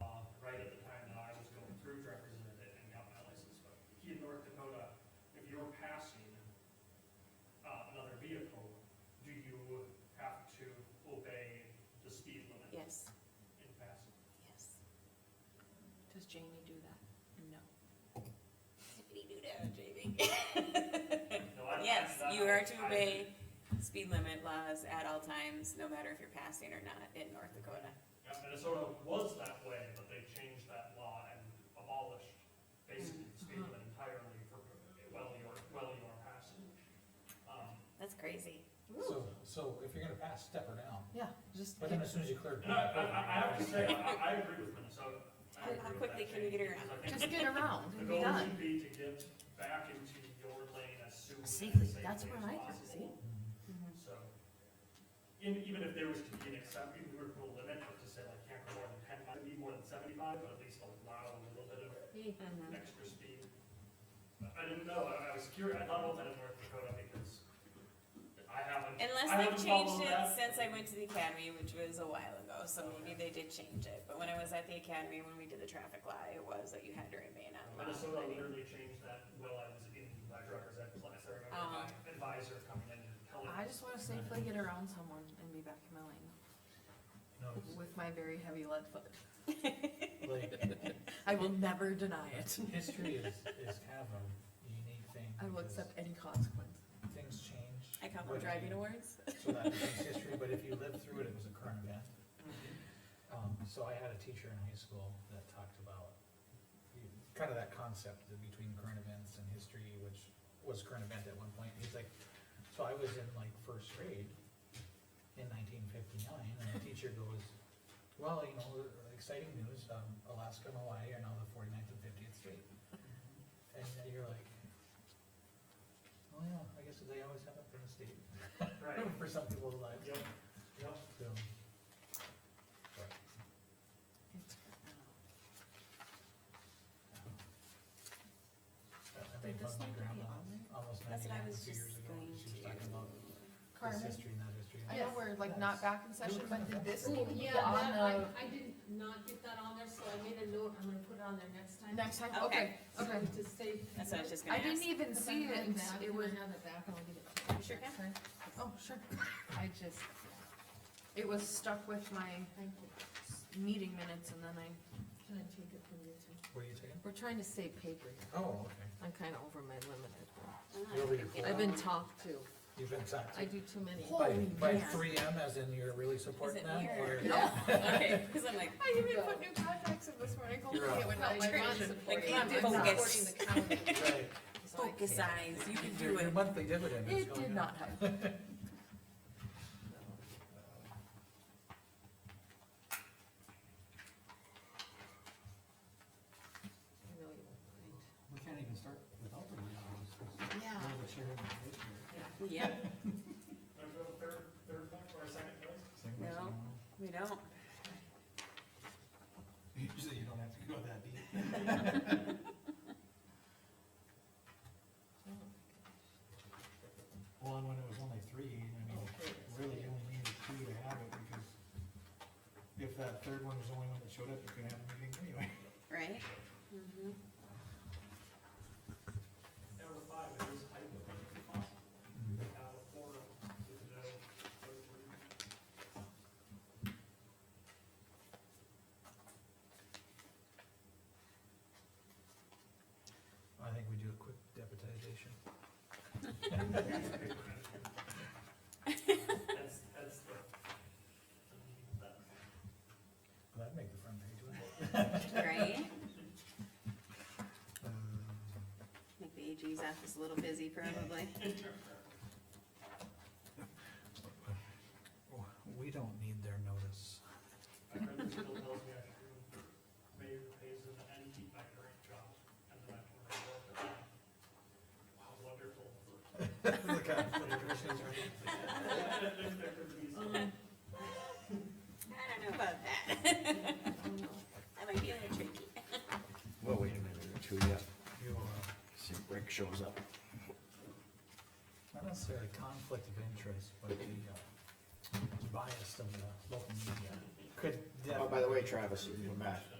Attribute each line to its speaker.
Speaker 1: uh, uh,
Speaker 2: Does Jamie do that? No.
Speaker 1: No, I- I-
Speaker 3: Eh, Yes,
Speaker 1: I-
Speaker 3: you are to
Speaker 1: I-
Speaker 3: obey speed limit laws at all times, no matter if you're passing or not in North Dakota.
Speaker 1: Yeah, Minnesota was that way, but they changed that law and abolished basically the speed
Speaker 3: Mm-hmm.
Speaker 1: limit entirely for well your, well your passage. Um,
Speaker 3: That's crazy.
Speaker 4: So, so if you're gonna pass, step her down,
Speaker 2: Yeah, just.
Speaker 4: but then as soon as you clear.
Speaker 1: And I, I, I have to say, I, I agree with Minnesota. I
Speaker 3: How- how
Speaker 1: agree with
Speaker 3: quickly
Speaker 1: that
Speaker 3: can you get
Speaker 1: change, because
Speaker 3: around?
Speaker 1: I think
Speaker 2: Just get around
Speaker 1: The
Speaker 2: and be
Speaker 1: goal
Speaker 2: done.
Speaker 1: should be to get back into your lane as soon and as
Speaker 2: Safely,
Speaker 1: safely
Speaker 2: that's
Speaker 1: as
Speaker 2: where I go, see?
Speaker 1: possible, so. In, even if there was to be an exception, we were to limit, but to say like can't go more than ten, might be more than seventy-five, but at least allow a little bit of
Speaker 2: Mm-hmm.
Speaker 1: extra speed. I didn't know, I I was curious, I thought about that in North Dakota because I haven't. I
Speaker 3: Unless
Speaker 1: haven't
Speaker 3: they've changed
Speaker 1: followed
Speaker 3: it
Speaker 1: that.
Speaker 3: since I went to the academy, which was a while ago, so maybe they did change it. But when I was at the academy, when we did the traffic law, it was that you had to remain on the
Speaker 1: Minnesota
Speaker 3: lawn.
Speaker 1: literally changed that while I was in my driver's ed class, I remember
Speaker 3: Uh-huh.
Speaker 1: my advisor coming in and telling me.
Speaker 2: Um, I just wanna safely get around someone and be back in my lane with my very heavy lead foot. I will never deny it.
Speaker 4: History is, is kind of a unique thing.
Speaker 2: I will
Speaker 4: because
Speaker 2: accept any consequence.
Speaker 4: Things change.
Speaker 3: I call them
Speaker 4: whether
Speaker 3: driving
Speaker 4: you-
Speaker 3: awards.
Speaker 4: So that becomes history, but if you lived through it, it was a current event. Um, so I had a teacher in high school that talked about you- kind of that concept that between current events and history, which was current event at one point. He's like, so I was in like first grade in nineteen fifty-nine, and the teacher goes, well, you know, exciting news, um, Alaska and Hawaii are now the 49th and fiftieth state. And then you're like, oh yeah, I guess they always have up in the state.
Speaker 1: Right,
Speaker 4: For some people's lives.
Speaker 1: yep, yep.
Speaker 4: So, I made
Speaker 2: Did
Speaker 4: fun
Speaker 2: this
Speaker 4: of my
Speaker 2: need to be
Speaker 4: grandma
Speaker 2: on there?
Speaker 4: almost
Speaker 3: That's what I
Speaker 4: ninety-nine,
Speaker 3: was
Speaker 4: two
Speaker 3: just
Speaker 4: years ago,
Speaker 3: going
Speaker 4: she was
Speaker 3: to.
Speaker 4: talking about this
Speaker 2: Carmen,
Speaker 4: history, not history.
Speaker 2: I know we're like not back in session, but did this need to be
Speaker 5: Yeah, that, I,
Speaker 2: on
Speaker 5: I did not get that on there, so I made a note, I'm gonna put it on there next
Speaker 2: the,
Speaker 5: time.
Speaker 2: next time, okay,
Speaker 5: So
Speaker 2: okay.
Speaker 5: To save.
Speaker 3: That's what I was just gonna
Speaker 2: I
Speaker 3: ask.
Speaker 2: didn't e- even
Speaker 5: If I
Speaker 2: see
Speaker 5: have
Speaker 2: it,
Speaker 5: back,
Speaker 2: it
Speaker 5: can I
Speaker 2: was,
Speaker 5: have it back, and I'll give it to you.
Speaker 3: Sure can.
Speaker 5: Sorry.
Speaker 2: oh, sure, I just, it was stuck with my
Speaker 5: Thank you.
Speaker 2: meeting minutes and then I,
Speaker 5: Can I take it from you too?
Speaker 4: What are you taking?
Speaker 2: we're trying to save paper,
Speaker 4: Oh, okay,
Speaker 2: I'm kinda over my limit.
Speaker 3: Ah,
Speaker 4: You'll be
Speaker 3: thank
Speaker 2: I've
Speaker 3: you.
Speaker 2: been talked to.
Speaker 4: you've been sacked.
Speaker 5: I do too many.
Speaker 4: By,
Speaker 2: Holy
Speaker 4: by
Speaker 2: man.
Speaker 4: three M as in you're really supporting
Speaker 3: it
Speaker 4: that
Speaker 3: near?
Speaker 4: or?
Speaker 2: No.
Speaker 3: Okay, because I'm like,
Speaker 2: I even put new contacts in this morning, hopefully
Speaker 4: You're up.
Speaker 2: it would help my
Speaker 3: Like,
Speaker 2: vision.
Speaker 3: like,
Speaker 2: It
Speaker 3: focus.
Speaker 2: did not.
Speaker 5: Supporting the county.
Speaker 4: Right.
Speaker 5: so I
Speaker 3: focus
Speaker 5: can't.
Speaker 3: eyes, you can
Speaker 4: Your-
Speaker 3: do
Speaker 4: Your
Speaker 3: it.
Speaker 4: monthly dividend is
Speaker 2: It
Speaker 4: going
Speaker 2: did
Speaker 4: up.
Speaker 2: not help.
Speaker 5: I know you won't mind.
Speaker 6: We can't even start without the meeting notice, 'cause we're the chair and the vice chair.
Speaker 3: Yeah,
Speaker 1: Wanna go to third, third one or second place?
Speaker 6: Second person,
Speaker 3: No. we
Speaker 6: you
Speaker 3: don't.
Speaker 6: know. Usually you don't have to go that deep.
Speaker 5: Oh,
Speaker 6: Well, and when it was only three, I mean,
Speaker 5: Okay, that's
Speaker 6: really
Speaker 5: good.
Speaker 6: you only needed two to have it, because if that third one was the only one that showed up, you couldn't have a meeting anyway.
Speaker 3: Right?
Speaker 2: Mm-hmm.
Speaker 1: Number five, it is hypothetically possible. We
Speaker 4: Mm-hmm.
Speaker 1: have a forum with no third party.
Speaker 4: I think we do a quick deputization.
Speaker 1: That's, that's the.
Speaker 4: That'd make the front page, wouldn't it?
Speaker 3: Right?
Speaker 4: Um,
Speaker 3: Make the AG's office a little busy probably.
Speaker 4: We don't need their notice.
Speaker 1: My friend still tells me I should do mayor pays them and keep my current job, and then I can work at that. How wonderful. There could be some-
Speaker 3: I don't know about that. That might be a little tricky.
Speaker 7: Well, wait a minute or two yet. See, if Rick shows up.
Speaker 4: Not necessarily conflict of interest, but the uh, bias of the local media could.
Speaker 7: Oh, by the way, Travis, you can come back.